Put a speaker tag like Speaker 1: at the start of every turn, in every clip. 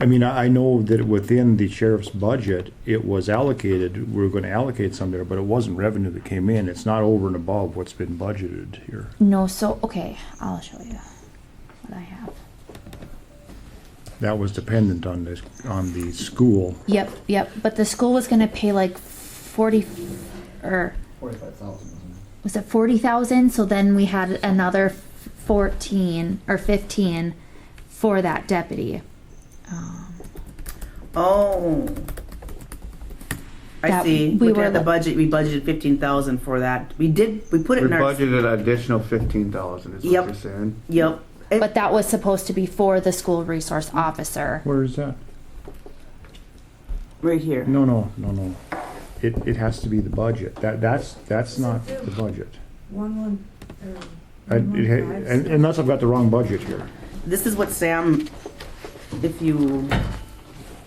Speaker 1: I mean, I I know that within the sheriff's budget, it was allocated, we were gonna allocate some there, but it wasn't revenue that came in. It's not over and above what's been budgeted here.
Speaker 2: No, so, okay, I'll show you what I have.
Speaker 1: That was dependent on this, on the school.
Speaker 2: Yep, yep, but the school was gonna pay like forty, or,
Speaker 3: Forty-five thousand, isn't
Speaker 2: was it forty thousand? So then we had another fourteen or fifteen for that deputy.
Speaker 4: Oh. I
Speaker 2: That
Speaker 4: see.
Speaker 2: we
Speaker 4: We
Speaker 2: were
Speaker 4: had the
Speaker 2: like-
Speaker 4: budget, we budgeted fifteen thousand for that. We did, we put it
Speaker 5: We
Speaker 4: in our,
Speaker 5: budgeted an additional fifteen thousand, is
Speaker 4: Yep.
Speaker 5: what you're saying?
Speaker 4: yep. It-
Speaker 2: But that was supposed to be for the school resource officer.
Speaker 1: Where is that?
Speaker 4: Right here.
Speaker 1: No, no, no, no. It, it has to be the budget. That, that's, that's not the budget.
Speaker 6: One, one,
Speaker 1: I-
Speaker 6: or
Speaker 1: it ha-
Speaker 6: Mhm.
Speaker 1: un- Unless I've got the wrong budget here.
Speaker 4: This is what Sam, if you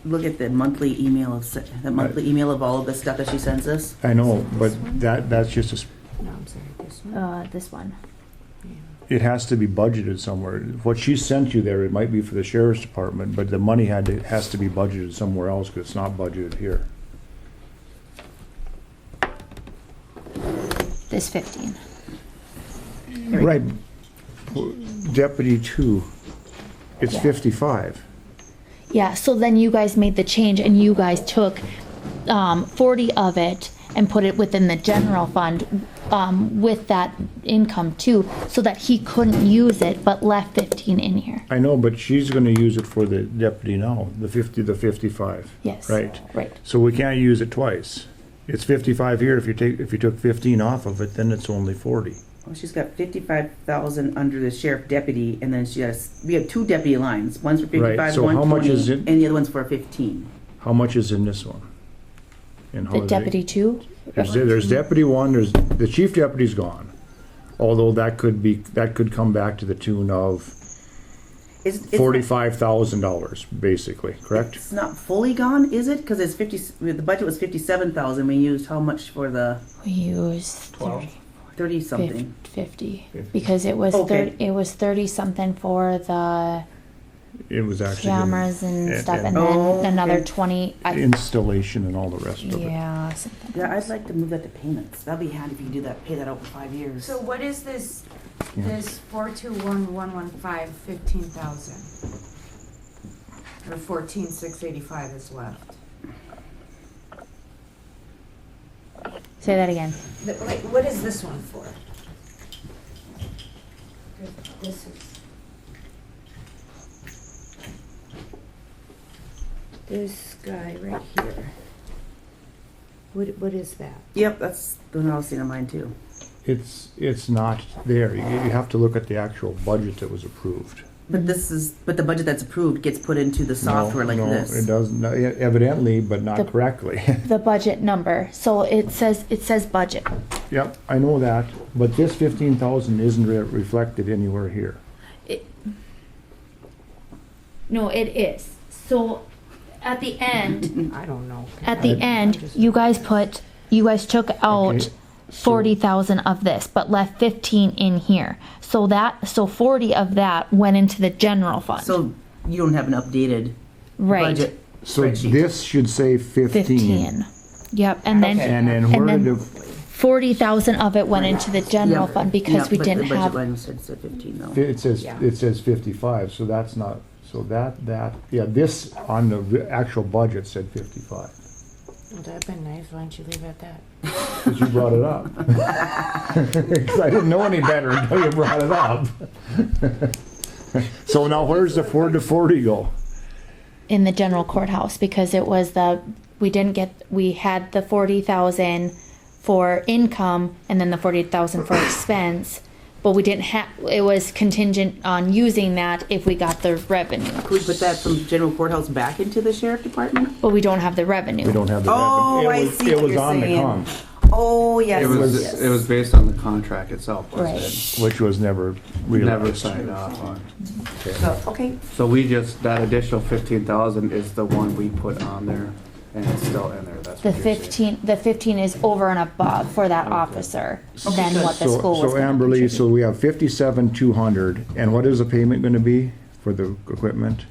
Speaker 4: look at the monthly email of, Sa- the monthly email of all of the stuff that she sends us.
Speaker 1: I know, but
Speaker 6: This one?
Speaker 1: that, that's just, a s-
Speaker 6: no, I'm sorry, this one.
Speaker 2: Uh, this one.
Speaker 1: it has to be budgeted somewhere. What she sent you there, it might be for the sheriff's department, but the money had to, has to be budgeted somewhere else because it's not budgeted here.
Speaker 2: This fifteen.
Speaker 1: Right. Deputy two, it's
Speaker 2: Yeah.
Speaker 1: fifty-five.
Speaker 2: Yeah, so then you guys made the change and you guys took um, 40 of it and put it within the general fund um, with that income too, so that he couldn't use it but left 15 in here.
Speaker 1: I know, but she's gonna use it for the deputy now, the fifty, the fifty-five.
Speaker 2: Yes.
Speaker 1: Right.
Speaker 2: Right.
Speaker 1: So we can't use it twice. It's fifty-five here. If you take, if you took fifteen off of it, then it's only forty.
Speaker 4: Well, Oh, she's got fifty-five thousand under the sheriff deputy, and then she has, we have two deputy lines. One's for
Speaker 1: Right,
Speaker 4: fifty-five,
Speaker 1: so
Speaker 4: one
Speaker 1: how much
Speaker 4: twenty,
Speaker 1: is it?
Speaker 4: and the other one's for fifteen.
Speaker 1: How much is in this one? And how
Speaker 2: The
Speaker 1: Oh, is it-
Speaker 2: deputy too?
Speaker 1: There's, there's deputy one, there's, the chief deputy's gone. Although that could be, that could come back to the tune of
Speaker 4: Is, it's not-
Speaker 1: forty-five thousand dollars, basically, correct?
Speaker 4: It's not fully gone, is it? Because it's fifty, the budget was fifty-seven thousand, we used how much for the
Speaker 2: We used 30,
Speaker 4: thirty something?
Speaker 2: 50, 50 because it was
Speaker 4: Okay.
Speaker 2: 30, it was 30 something for the
Speaker 1: It was actually.
Speaker 2: cameras and
Speaker 1: and-
Speaker 2: stuff and,
Speaker 1: and-
Speaker 2: then
Speaker 4: Oh,
Speaker 2: another
Speaker 4: okay.
Speaker 2: 20 I,
Speaker 1: Installation and all the rest of it.
Speaker 2: yeah, something.
Speaker 4: Yeah, I'd like to move that to payments, that'd be handy if you could do that, pay that out in five years.
Speaker 6: So what is this,
Speaker 1: Yeah.
Speaker 6: this four two one one one five fifteen thousand? Or fourteen six eighty-five is left?
Speaker 2: Say that again.
Speaker 6: Th- Wait, what is this one for? This is. This guy right here. What, what is that?
Speaker 4: Yep, that's the one I was seeing on mine too.
Speaker 1: It's, it's not there. You, you have to look at the actual budget that was approved.
Speaker 4: But this is, but the budget that's approved gets put into the software like
Speaker 1: No, no, It
Speaker 4: this.
Speaker 1: doesn't, evidently, but
Speaker 2: The-
Speaker 1: not correctly.
Speaker 2: The budget number. So it says it says budget.
Speaker 1: Yep, I know that, but this fifteen thousand isn't re- reflected anywhere here.
Speaker 2: It, no, it is. So at the end,
Speaker 6: I don't know.
Speaker 2: at the end, you guys put, you guys took out
Speaker 1: Okay, so-
Speaker 2: forty thousand of this, but left fifteen in here. So that, so forty of that went into the general fund,
Speaker 4: So you don't have an updated
Speaker 2: right?
Speaker 4: budget
Speaker 1: So
Speaker 4: spreadsheet.
Speaker 1: this should say fifteen.
Speaker 2: Fifteen. Yep, and then
Speaker 1: And then where
Speaker 2: And
Speaker 1: did,
Speaker 2: then- forty thousand of it went into the general
Speaker 4: Yeah.
Speaker 2: fund because
Speaker 4: Yeah,
Speaker 2: we
Speaker 4: but the
Speaker 2: didn't
Speaker 4: budget
Speaker 2: have,
Speaker 4: line said- said fifteen
Speaker 1: the-
Speaker 4: though.
Speaker 1: it says,
Speaker 6: Yeah.
Speaker 1: it says fifty-five, so that's not, so that, that, yeah, this on the re- actual budget said fifty-five.
Speaker 6: Well, that'd been nice, why don't you leave it at that?
Speaker 1: Because you brought it up. 'Cause I didn't know any better until you brought it up. So now where's the four to forty go?
Speaker 2: in the general courthouse because it was the we didn't get we had the 40,000 for income and then the 40,000 for expense but we didn't have it was contingent on using that if we got the revenue
Speaker 4: Could we put that from general courthouse back into the sheriff department?
Speaker 2: but we don't have the revenue
Speaker 1: We don't have the
Speaker 4: Oh,
Speaker 1: revenue. It
Speaker 4: I
Speaker 1: was-
Speaker 4: see
Speaker 1: It
Speaker 4: what
Speaker 1: was
Speaker 4: you're
Speaker 1: on the
Speaker 4: saying.
Speaker 1: comp,
Speaker 4: Oh, yes,
Speaker 5: It
Speaker 4: yes.
Speaker 5: was, it was based on the contract itself,
Speaker 2: Right.
Speaker 5: was
Speaker 1: which was never
Speaker 5: it? Never
Speaker 1: realized.
Speaker 5: signed off on.
Speaker 4: So, okay,
Speaker 5: So we just, that additional fifteen thousand is the one we put on there, and it's still in there, that's
Speaker 2: the
Speaker 5: what you're saying.
Speaker 2: 15 the 15 is over and above for that officer than what the
Speaker 1: So-
Speaker 2: school was
Speaker 1: So
Speaker 2: gonna
Speaker 1: Amberly, so
Speaker 2: contribute.
Speaker 1: we have fifty-seven, two hundred, and what is the payment gonna be for the equipment?